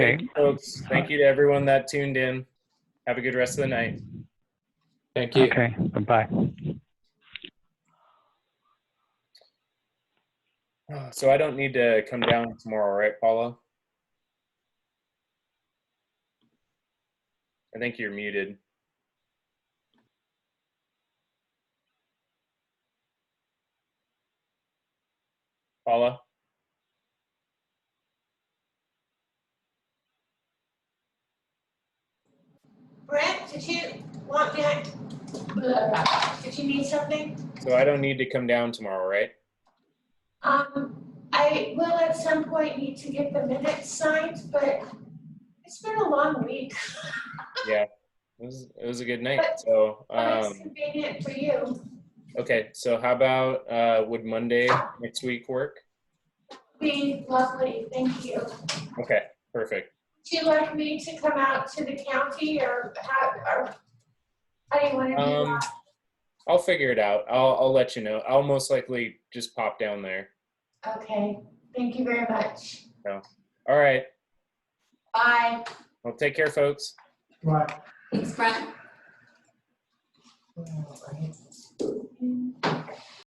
Thank you, folks. Thank you to everyone that tuned in. Have a good rest of the night. Thank you. Okay, bye-bye. Uh, So I don't need to come down tomorrow, right, Paula? I think you're muted. Paula? Brett, did you want me, did you need something? So I don't need to come down tomorrow, right? Um, I will at some point need to get the minutes signed, but it's been a long week. It was, it was a good night. So, But it's um, convenient for you. okay. So how about, uh, would Monday next week work? Be lovely, thank you. Okay, perfect. Do you like me to come out to the county or how, or how do you want to do Um, that? I'll figure it out. I'll, I'll let you know. I'll most likely just pop down there. Okay, thank you very much. All right. Bye. Well, take care, folks. Thanks, Brent. All